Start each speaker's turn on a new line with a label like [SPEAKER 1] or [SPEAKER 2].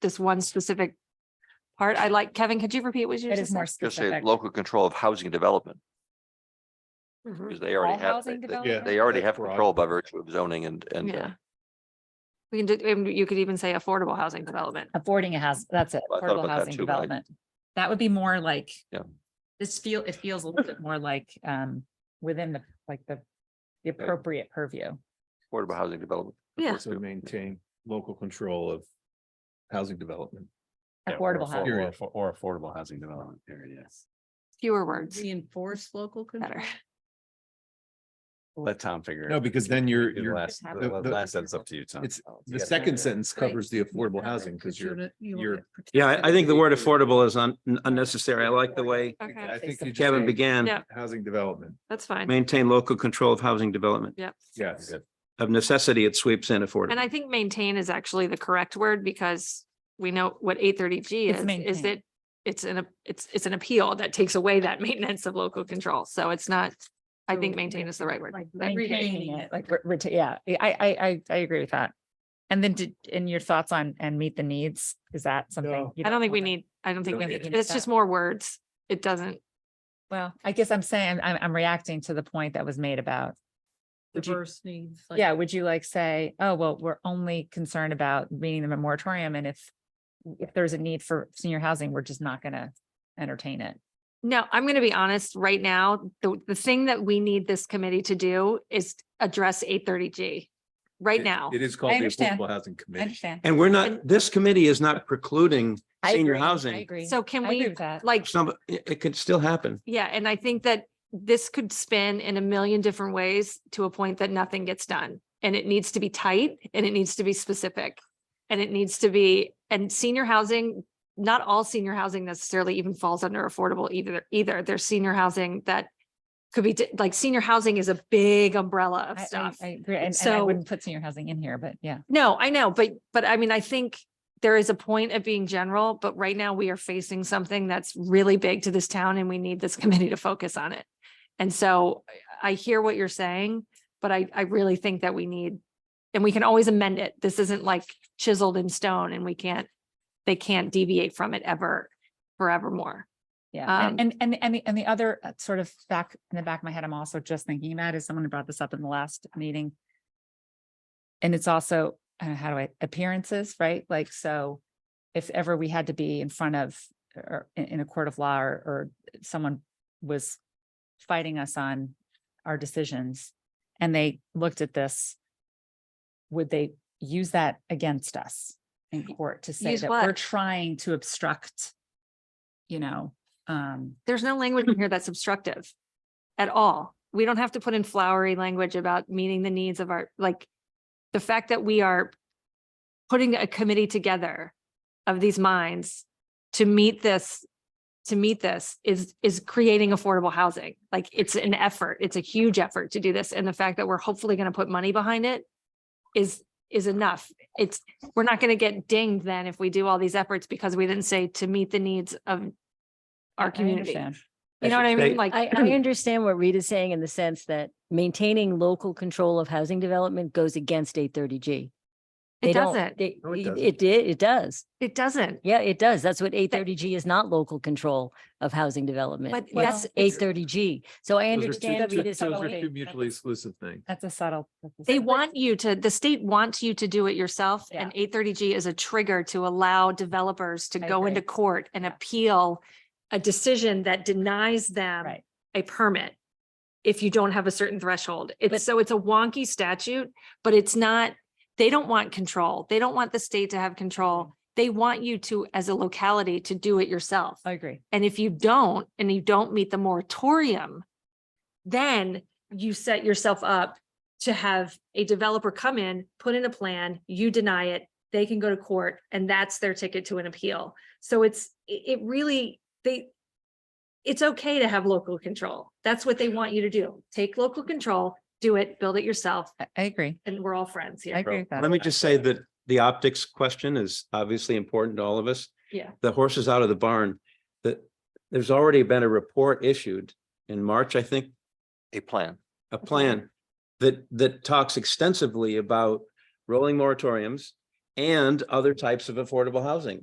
[SPEAKER 1] this one specific part. I like, Kevin, could you repeat what you
[SPEAKER 2] It
[SPEAKER 1] just
[SPEAKER 2] is more
[SPEAKER 1] said?
[SPEAKER 3] Just say
[SPEAKER 2] specific.
[SPEAKER 3] local control of housing development,
[SPEAKER 1] Mhm.
[SPEAKER 3] because they already
[SPEAKER 2] All
[SPEAKER 3] have,
[SPEAKER 2] housing
[SPEAKER 3] they- they-
[SPEAKER 2] development?
[SPEAKER 3] they already
[SPEAKER 4] That's
[SPEAKER 3] have
[SPEAKER 4] broad.
[SPEAKER 3] control by virtue of zoning and, and. uh,
[SPEAKER 1] Yeah. We can do, and you could even say affordable housing development.
[SPEAKER 2] Affording a house, that's it,
[SPEAKER 3] I thought about
[SPEAKER 2] affordable
[SPEAKER 3] that
[SPEAKER 2] housing
[SPEAKER 3] too, but I-
[SPEAKER 2] development. That would be more like.
[SPEAKER 3] Yeah.
[SPEAKER 2] This feel, it feels a little bit more like, um, within the, like the, the appropriate purview.
[SPEAKER 3] Affordable housing development.
[SPEAKER 1] Yeah.
[SPEAKER 4] So maintain local control of housing development.
[SPEAKER 5] Yeah, or
[SPEAKER 2] Affordable
[SPEAKER 5] affo-
[SPEAKER 2] housing.
[SPEAKER 5] or
[SPEAKER 4] Period.
[SPEAKER 5] affo- Or affordable housing development, period, yes.
[SPEAKER 1] Fewer words,
[SPEAKER 6] Reinforce local
[SPEAKER 1] better.
[SPEAKER 6] control.
[SPEAKER 5] Let Tom figure.
[SPEAKER 4] No,
[SPEAKER 5] it.
[SPEAKER 4] because then you're,
[SPEAKER 5] The
[SPEAKER 4] you're,
[SPEAKER 5] Last,
[SPEAKER 2] Have
[SPEAKER 5] the-
[SPEAKER 4] it.
[SPEAKER 5] the last sentence up to you, Tom.
[SPEAKER 4] it's, the second sentence covers the affordable housing because you're, you're-
[SPEAKER 7] Yeah, I, I think the word affordable is un- unnecessary. I like the way
[SPEAKER 1] Okay,
[SPEAKER 4] I think you just.
[SPEAKER 7] Kevin
[SPEAKER 4] say
[SPEAKER 7] began,
[SPEAKER 1] Yeah.
[SPEAKER 4] Housing development,
[SPEAKER 1] that's fine.
[SPEAKER 7] maintain local control of housing development.
[SPEAKER 1] Yep.
[SPEAKER 4] yes.
[SPEAKER 7] Of necessity, it sweeps in affordable.
[SPEAKER 1] And I think maintain is actually the correct word because we know what eight thirty G
[SPEAKER 2] It's
[SPEAKER 1] is, is
[SPEAKER 2] maintain.
[SPEAKER 1] that it's an, ap- it's, it's an appeal that takes away that maintenance of local control. So it's not, I think maintain is the right word.
[SPEAKER 2] Like
[SPEAKER 1] Like
[SPEAKER 2] maintaining it, like, re- reta- yeah, I, I, I, I agree with that. And then did, and your thoughts on, and meet the needs, is that something?
[SPEAKER 4] No.
[SPEAKER 2] you
[SPEAKER 1] I don't think we
[SPEAKER 2] want?
[SPEAKER 1] need, I don't think we
[SPEAKER 2] don't
[SPEAKER 1] need,
[SPEAKER 2] need
[SPEAKER 1] it's
[SPEAKER 2] that.
[SPEAKER 1] just more words. It doesn't,
[SPEAKER 2] Well, I guess I'm saying, I'm, I'm reacting to the point that was made about, would you-
[SPEAKER 6] Diverse needs. like-
[SPEAKER 2] yeah, would you like say, oh, well, we're only concerned about meeting the moratorium and if, if there's a need for senior housing, we're just not gonna entertain it.
[SPEAKER 1] No, I'm going to be honest, right now, the, the thing that we need this committee to do is address eight thirty G. Right
[SPEAKER 4] It-
[SPEAKER 1] now,
[SPEAKER 4] It is called the
[SPEAKER 2] understand.
[SPEAKER 4] affordable housing committee.
[SPEAKER 7] And we're not, this committee is not precluding
[SPEAKER 2] I
[SPEAKER 7] senior
[SPEAKER 2] agree, I
[SPEAKER 7] housing.
[SPEAKER 2] agree.
[SPEAKER 1] so can
[SPEAKER 2] I agree
[SPEAKER 1] we,
[SPEAKER 2] with that.
[SPEAKER 1] like,
[SPEAKER 7] Some, it it could still happen.
[SPEAKER 1] yeah, and I think that this could spin in a million different ways to a point that nothing gets done. And it needs to be tight and it needs to be specific. And it needs to be, and senior housing, not all senior housing necessarily even falls under affordable either, either. There's senior housing that could be, di- like, senior housing is a big umbrella of
[SPEAKER 2] I- I-
[SPEAKER 1] stuff.
[SPEAKER 2] I agree, and, and I
[SPEAKER 1] So-
[SPEAKER 2] wouldn't put senior housing in here, but yeah.
[SPEAKER 1] No, I know, but, but I mean, I think there is a point of being general, but right now we are facing something that's really big to this town and we need this committee to focus on it. And so I I hear what you're saying, but I, I really think that we need, and we can always amend it. This isn't like chiseled in stone and we can't, they can't deviate from it ever, forevermore.
[SPEAKER 2] Yeah, and-
[SPEAKER 1] Um,
[SPEAKER 2] and, and, and the, and the other uh, sort of back, in the back of my head, I'm also just thinking about is someone brought this up in the last meeting. And it's also, uh, how do I, appearances, right? Like, so if ever we had to be in front of, or in, in a court of law, or, or someone was fighting us on our decisions, and they looked at this, would they use that against us in court to say
[SPEAKER 1] Use
[SPEAKER 2] that we're
[SPEAKER 1] what?
[SPEAKER 2] trying to obstruct, you know, um,
[SPEAKER 1] There's no language in here that's obstructive at all. We don't have to put in flowery language about meeting the needs of our, like, the fact that we are putting a committee together of these minds to meet this, to meet this is, is creating affordable housing. Like, it's an effort. It's a huge effort to do this. And the fact that we're hopefully going to put money behind it is, is enough. It's, we're not going to get dinged then if we do all these efforts because we didn't say to meet the needs of
[SPEAKER 2] I- I
[SPEAKER 1] our community.
[SPEAKER 2] understand.
[SPEAKER 1] You know what I mean? Like,
[SPEAKER 8] I, I understand what Rita's saying in the sense that maintaining local control of housing development goes against eight thirty G.
[SPEAKER 1] it doesn't,
[SPEAKER 8] It,
[SPEAKER 4] No, it doesn't.
[SPEAKER 8] it did, it does.
[SPEAKER 1] it doesn't,
[SPEAKER 8] Yeah, it does. That's what eight thirty G is not local control of housing
[SPEAKER 1] but
[SPEAKER 8] development.
[SPEAKER 1] that's,
[SPEAKER 8] Eight thirty G. So
[SPEAKER 4] Those are
[SPEAKER 8] I
[SPEAKER 4] two-
[SPEAKER 8] understand
[SPEAKER 4] two-
[SPEAKER 8] Rita's
[SPEAKER 4] Those are
[SPEAKER 8] point.
[SPEAKER 4] two mutually exclusive things.
[SPEAKER 2] That's a subtle. that's a
[SPEAKER 1] they
[SPEAKER 2] subtle-
[SPEAKER 1] want you to, the state wants you to do it yourself. And eight thirty G is a trigger to allow developers to
[SPEAKER 2] I
[SPEAKER 1] go into
[SPEAKER 2] agree.
[SPEAKER 1] court and
[SPEAKER 2] Yeah.
[SPEAKER 1] appeal a decision that denies them
[SPEAKER 2] Right.
[SPEAKER 1] a permit if you don't have a certain threshold.
[SPEAKER 8] But-
[SPEAKER 1] It's, so it's a wonky statute, but it's not, they don't want control. They don't want the state to have
[SPEAKER 2] Mm.
[SPEAKER 1] control. They want you to, as a locality, to do it yourself.
[SPEAKER 2] I agree.
[SPEAKER 1] And if you don't, and you don't meet the moratorium, then you set yourself up to have a developer come in, put in a plan, you deny it, they can go to court, and that's their ticket to an appeal. So it's, it, it really, they, it's okay to have local control. That's what they want you to do. Take local control, do it, build it yourself,
[SPEAKER 2] I I agree.
[SPEAKER 1] and we're all friends
[SPEAKER 2] I
[SPEAKER 1] here.
[SPEAKER 2] agree with that.
[SPEAKER 7] Let me just say that the optics question is obviously important to all of us.
[SPEAKER 1] Yeah.
[SPEAKER 7] The horse is out of the barn, that there's already been a report issued in March, I think,
[SPEAKER 3] A plan.
[SPEAKER 7] a plan that, that talks extensively about rolling moratoriums and other types of affordable housing.